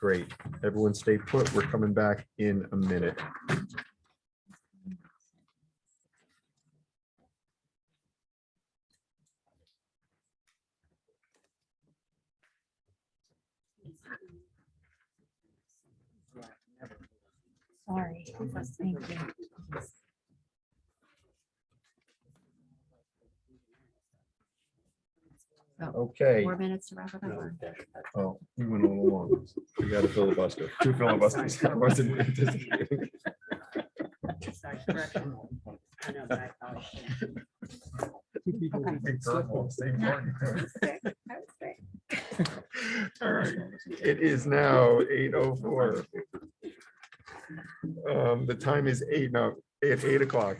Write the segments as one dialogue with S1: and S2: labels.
S1: Great. Everyone stay put. We're coming back in a minute.
S2: Sorry. Thank you.
S1: Okay.
S2: Four minutes to wrap it up.
S1: Oh, we went all along. We got a filibuster. Two filibusters. I wasn't anticipating.
S3: Sorry, correction. I know, but I thought it was sick. I was sick.
S1: All right. It is now eight oh four. Um, the time is eight, no, it's eight o'clock.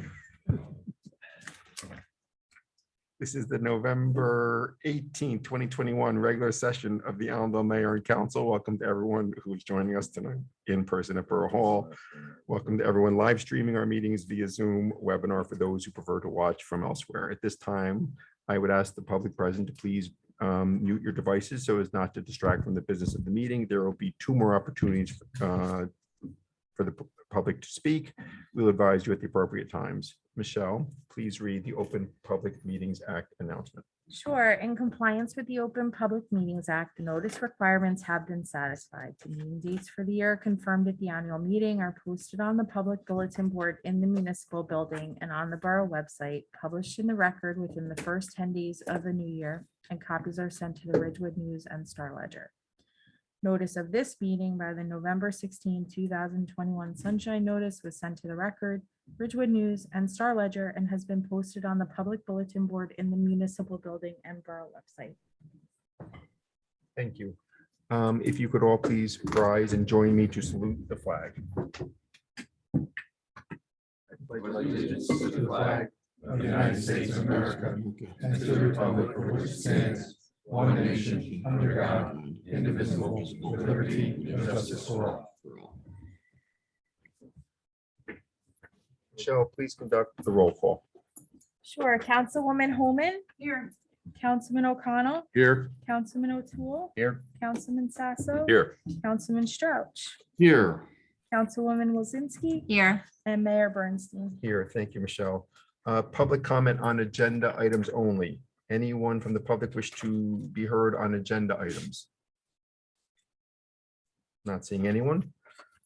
S1: This is the November eighteenth, twenty twenty-one regular session of the Allendale Mayor and Council. Welcome to everyone who's joining us tonight in person at Borough Hall. Welcome to everyone live streaming our meetings via Zoom webinar for those who prefer to watch from elsewhere. At this time, I would ask the public present to please um, mute your devices so as not to distract from the business of the meeting. There will be two more opportunities uh, for the pu- public to speak. We'll advise you at the appropriate times. Michelle, please read the Open Public Meetings Act announcement.
S4: Sure, in compliance with the Open Public Meetings Act, the notice requirements have been satisfied. The meeting dates for the year confirmed at the annual meeting are posted on the public bulletin board in the municipal building and on the borough website, published in the record within the first ten days of the new year, and copies are sent to the Ridgewood News and Star Ledger. Notice of this meeting by the November 16, 2021 sunshine notice was sent to the record, Ridgewood News and Star Ledger and has been posted on the public bulletin board in the municipal building and borough website.
S1: Thank you. Um, If you could all please rise and join me to salute the flag.
S5: allegiance to the flag of the United States of America and to the republic for which it stands, one nation, under God, indivisible, with liberty and justice for all.
S1: Michelle, please conduct the roll call.
S4: Sure, Councilwoman Holman,
S3: Here.
S4: Councilman O'Connell,
S1: Here.
S4: Councilman O'Toole,
S1: Here.
S4: Councilman Sasso,
S1: Here.
S4: Councilman Strouch,
S1: Here.
S4: Councilwoman Wozinski,
S2: Here,
S4: and Mayor Bernstein.
S1: Here, thank you, Michelle. Uh, Public comment on agenda items only. Anyone from the public wish to be heard on agenda items? Not seeing anyone.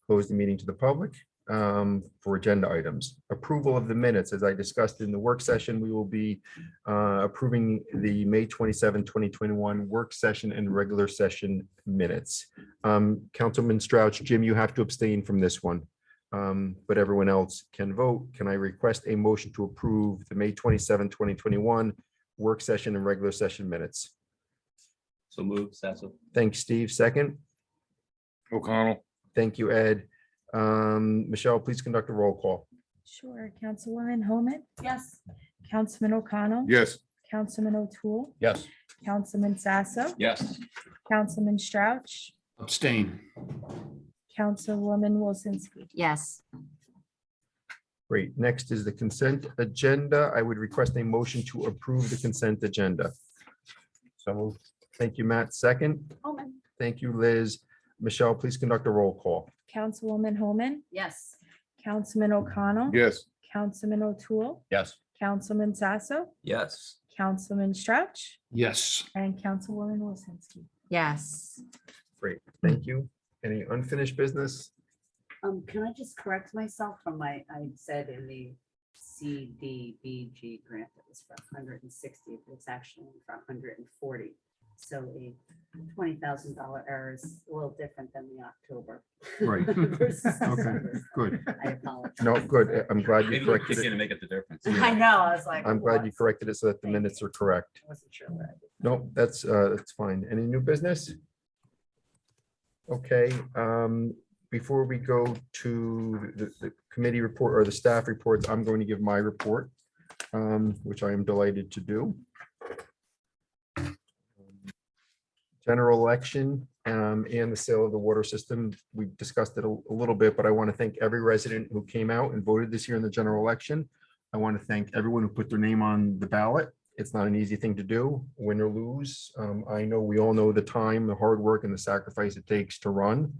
S1: Close the meeting to the public um, for agenda items. Approval of the minutes, as I discussed in the work session, we will be uh, approving the May 27, 2021 work session and regular session minutes. Um, Councilman Strouch, Jim, you have to abstain from this one. Um, but everyone else can vote. Can I request a motion to approve the May 27, 2021 work session and regular session minutes?
S6: So move, Sasso.
S1: Thanks, Steve. Second.
S5: O'Connell.
S1: Thank you, Ed. Um, Michelle, please conduct a roll call.
S4: Sure, Councilwoman Holman,
S3: Yes.
S4: Councilman O'Connell,
S5: Yes.
S4: Councilman O'Toole,
S5: Yes.
S4: Councilman Sasso,
S6: Yes.
S4: Councilman Strouch,
S5: Abstain.
S4: Councilwoman Wozinski.
S3: Yes.
S1: Great. Next is the consent agenda. I would request a motion to approve the consent agenda. So moved. Thank you, Matt. Second.
S3: Holman.
S1: Thank you, Liz. Michelle, please conduct a roll call.
S4: Councilwoman Holman,
S3: Yes.
S4: Councilman O'Connell,
S5: Yes.
S4: Councilman O'Toole,
S5: Yes.
S4: Councilman Sasso,
S6: Yes.
S4: Councilman Strouch,
S5: Yes.
S4: and Councilwoman Wozinski.
S2: yes.
S1: Great. Thank you. Any unfinished business?
S3: Um, can I just correct myself from my, I said in the CDBG grant that was for hundred and sixty, but it's actually for hundred and forty. So a twenty thousand dollar error is a little different than the October.
S1: Right.
S3: versus
S1: Okay,
S3: December.
S1: good.
S3: I apologize.
S1: No, good. I'm glad
S6: Maybe
S1: you
S6: we're
S1: corrected it.
S6: kicking to make up the difference.
S3: I know, I was like.
S1: I'm glad you
S3: what?
S1: corrected it so that the
S3: Thank you.
S1: minutes are correct.
S3: I Wasn't sure what I did.
S1: No, that's, uh, that's fine. Any new business? Okay, um, before we go to the, the committee report or the staff reports, I'm going to give my report, um, which I am delighted to do. General election, um, and the sale of the water system. We discussed it a, a little bit, but I want to thank every resident who came out and voted this year in the general election. I want to thank everyone who put their name on the ballot It's not an easy thing to do, win or lose. Um, I know, we all know the time, the hard work and the sacrifice it takes to run.